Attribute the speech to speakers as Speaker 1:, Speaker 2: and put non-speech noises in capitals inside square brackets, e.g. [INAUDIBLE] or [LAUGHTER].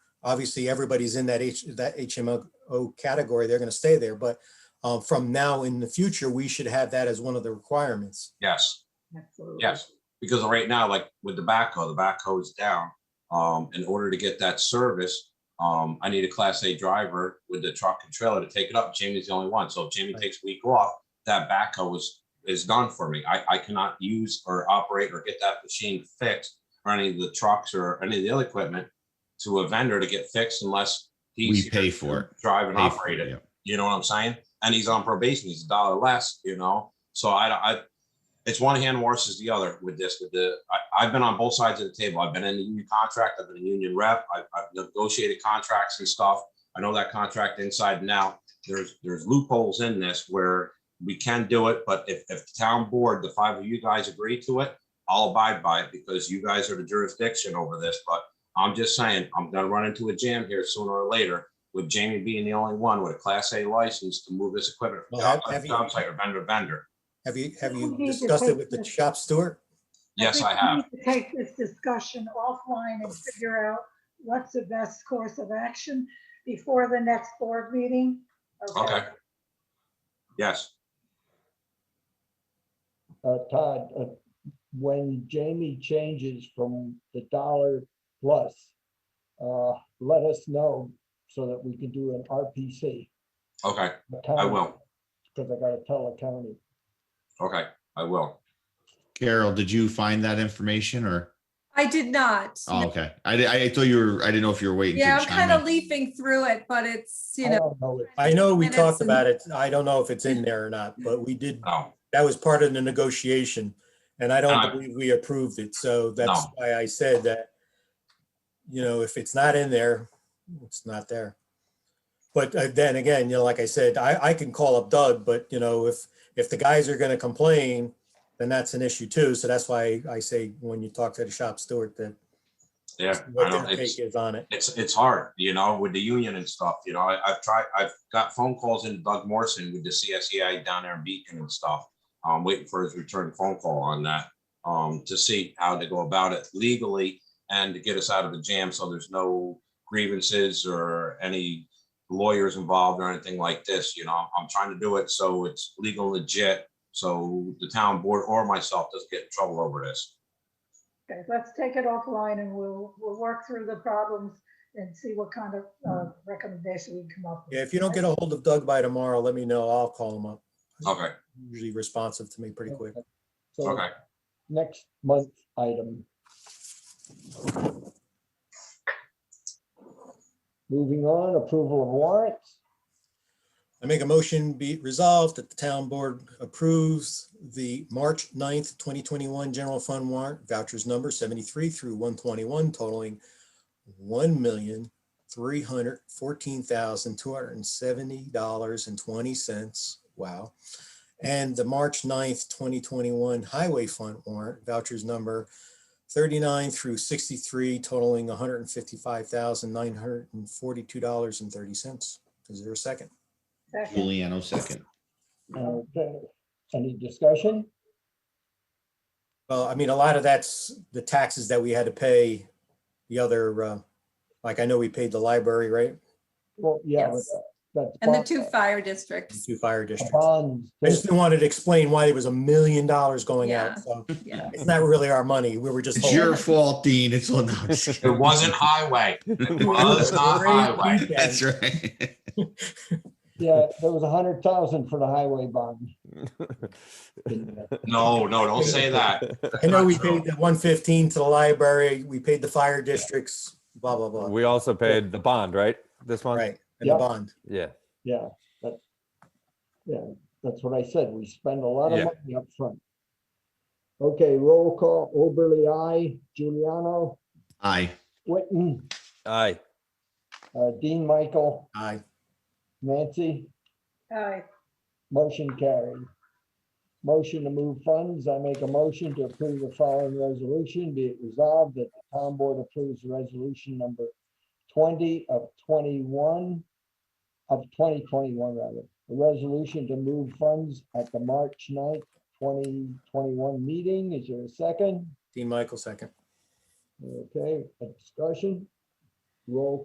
Speaker 1: obviously everybody's in that H, that HMO category, they're gonna stay there, but uh, from now in the future, we should have that as one of the requirements.
Speaker 2: Yes,
Speaker 3: Absolutely.
Speaker 2: yes, because right now, like with the backhoe, the backhoe is down. Um, in order to get that service, um, I need a class A driver with the truck and trailer to take it up. Jamie's the only one. So if Jamie takes a week off, that backhoe is, is done for me. I, I cannot use or operate or get that machine fixed or any of the trucks or any of the other equipment to a vendor to get fixed unless he's
Speaker 4: We pay for it.
Speaker 2: drive and
Speaker 4: Pay for
Speaker 2: operate it.
Speaker 4: yeah.
Speaker 2: You know what I'm saying? And he's on probation. He's a dollar less, you know? So I, I, it's one hand versus the other with this, with the, I, I've been on both sides of the table. I've been in the union contract. I've been a union rep. I've, I've negotiated contracts and stuff. I know that contract inside and out. There's, there's loopholes in this where we can do it, but if, if the town board, the five of you guys agree to it, I'll abide by it because you guys are the jurisdiction over this, but I'm just saying, I'm gonna run into a jam here sooner or later with Jamie being the only one with a Class A license to move this equipment from
Speaker 1: Well, have-
Speaker 2: job site
Speaker 1: have
Speaker 2: to
Speaker 1: you-
Speaker 2: job site or vendor to vendor.
Speaker 1: Have you, have
Speaker 3: We
Speaker 1: you
Speaker 3: need to
Speaker 1: discussed it
Speaker 3: take
Speaker 1: with the
Speaker 3: this-
Speaker 1: shop steward?
Speaker 2: Yes, I
Speaker 3: think
Speaker 2: have.
Speaker 3: we need to Take this discussion offline and figure out what's the best course of action before the next board meeting.
Speaker 2: Okay. Yes,
Speaker 5: uh, Todd, uh, when Jamie changes from the dollar plus, uh, let us know so that we can do an RPC.
Speaker 2: okay, I will.
Speaker 5: Because I gotta tell the county.
Speaker 2: Okay, I will.
Speaker 4: Carol, did you find that information or?
Speaker 6: I did not.
Speaker 4: Oh,
Speaker 6: no.
Speaker 4: okay. I, di- I thought you were, I didn't know if you were waiting. to
Speaker 6: Yeah, I'm
Speaker 4: chime
Speaker 6: kind of
Speaker 4: in.
Speaker 6: leafing through it, but it's, you
Speaker 5: I
Speaker 6: know,
Speaker 5: don't know it.
Speaker 1: I know we
Speaker 6: Minutes
Speaker 1: talked
Speaker 6: and-
Speaker 1: about it. I don't know if it's in there or not, but we did,
Speaker 2: No,
Speaker 1: that was part of the negotiation. And I
Speaker 2: And
Speaker 1: don't
Speaker 2: I-
Speaker 1: believe we approved it. So that's
Speaker 2: Uh, No.
Speaker 1: why I said that, you know, if it's not in there, it's not there. But uh, then again, you know, like I said, I, I can call up Doug, but you know, if, if the guys are going to complain, then that's an issue too. So that's why I say when you talk to the shop steward, that
Speaker 2: yeah, I
Speaker 1: what
Speaker 2: don't,
Speaker 1: their
Speaker 2: it's,
Speaker 1: take is on it.
Speaker 2: it's, it's hard, you know, with the union and stuff, you know, I, I've tried, I've got phone calls into Doug Morrison with the CSEI down there in Beacon and stuff. I'm waiting for his return phone call on that, um, to see how to go about it legally and to get us out of the jam, so there's no grievances or any lawyers involved or anything like this, you know, I'm trying to do it so it's legal legit, so the town board or myself doesn't get in trouble over this.
Speaker 3: Okay, let's take it offline and we'll, we'll work through the problems and see what kind of uh, recommendation we can come up with.
Speaker 1: Yeah, if you don't get a hold of Doug by tomorrow, let me know. I'll call him up.
Speaker 2: Okay,
Speaker 1: Usually responsive to me pretty quick.
Speaker 5: So
Speaker 2: okay,
Speaker 5: next month item. Moving on, approval of warrants.
Speaker 1: I make a motion be it resolved that the town board approves the March 9th, twenty twenty-one general fund warrant vouchers number seventy-three through one twenty-one totaling one million, three hundred fourteen thousand, two hundred and seventy dollars and twenty cents. Wow. And the March 9th, twenty twenty-one highway fund warrant vouchers number thirty-nine through sixty-three totaling one hundred and fifty-five thousand, nine hundred and forty-two dollars and thirty cents. Is there a second?
Speaker 3: Second.
Speaker 4: Juliano second.
Speaker 5: Okay, any discussion?
Speaker 1: Well, I mean, a lot of that's the taxes that we had to pay the other, uh, like I know we paid the library, right?
Speaker 5: Well, yeah. but
Speaker 6: Yes.
Speaker 5: that's
Speaker 6: and the
Speaker 5: bond-
Speaker 6: two fire districts.
Speaker 1: Two fire
Speaker 5: a
Speaker 1: districts.
Speaker 5: Bond.
Speaker 1: I just wanted to explain why there was a million dollars going out. So
Speaker 6: Yeah.
Speaker 1: it's not really our money. We were just.
Speaker 4: It's your fault, Dean. It's all. no, I'm just
Speaker 2: it
Speaker 4: kidding.
Speaker 2: wasn't highway, it was not highway.
Speaker 4: [LAUGHS] That's right.
Speaker 5: Yeah, there was a hundred thousand for the highway bond.
Speaker 2: No, no, don't say that.
Speaker 1: I know we paid the one fifteen to the library. We paid the fire districts, blah, blah, blah.
Speaker 7: [LAUGHS] We also paid the bond, right? This month?
Speaker 1: Right. And the
Speaker 5: Yeah.
Speaker 1: bond.
Speaker 7: Yeah,
Speaker 5: Yeah, that, yeah, that's what I said. We spend a lot of
Speaker 7: Yeah.
Speaker 5: money up front. Okay, roll call, Oberly, I, Giuliano,
Speaker 4: Aye.
Speaker 5: Whitten,
Speaker 7: aye.
Speaker 5: uh, Dean Michael,
Speaker 1: Aye.
Speaker 5: Nancy,
Speaker 3: Aye.
Speaker 5: motion carried. Motion to move funds. I make a motion to approve the following resolution. Be it resolved that the town board approves resolution number twenty of twenty-one of twenty twenty-one rather. The resolution to move funds at the March 9th, twenty twenty-one meeting. Is there a second?
Speaker 1: Dean Michael, second.
Speaker 5: Okay, a discussion. Roll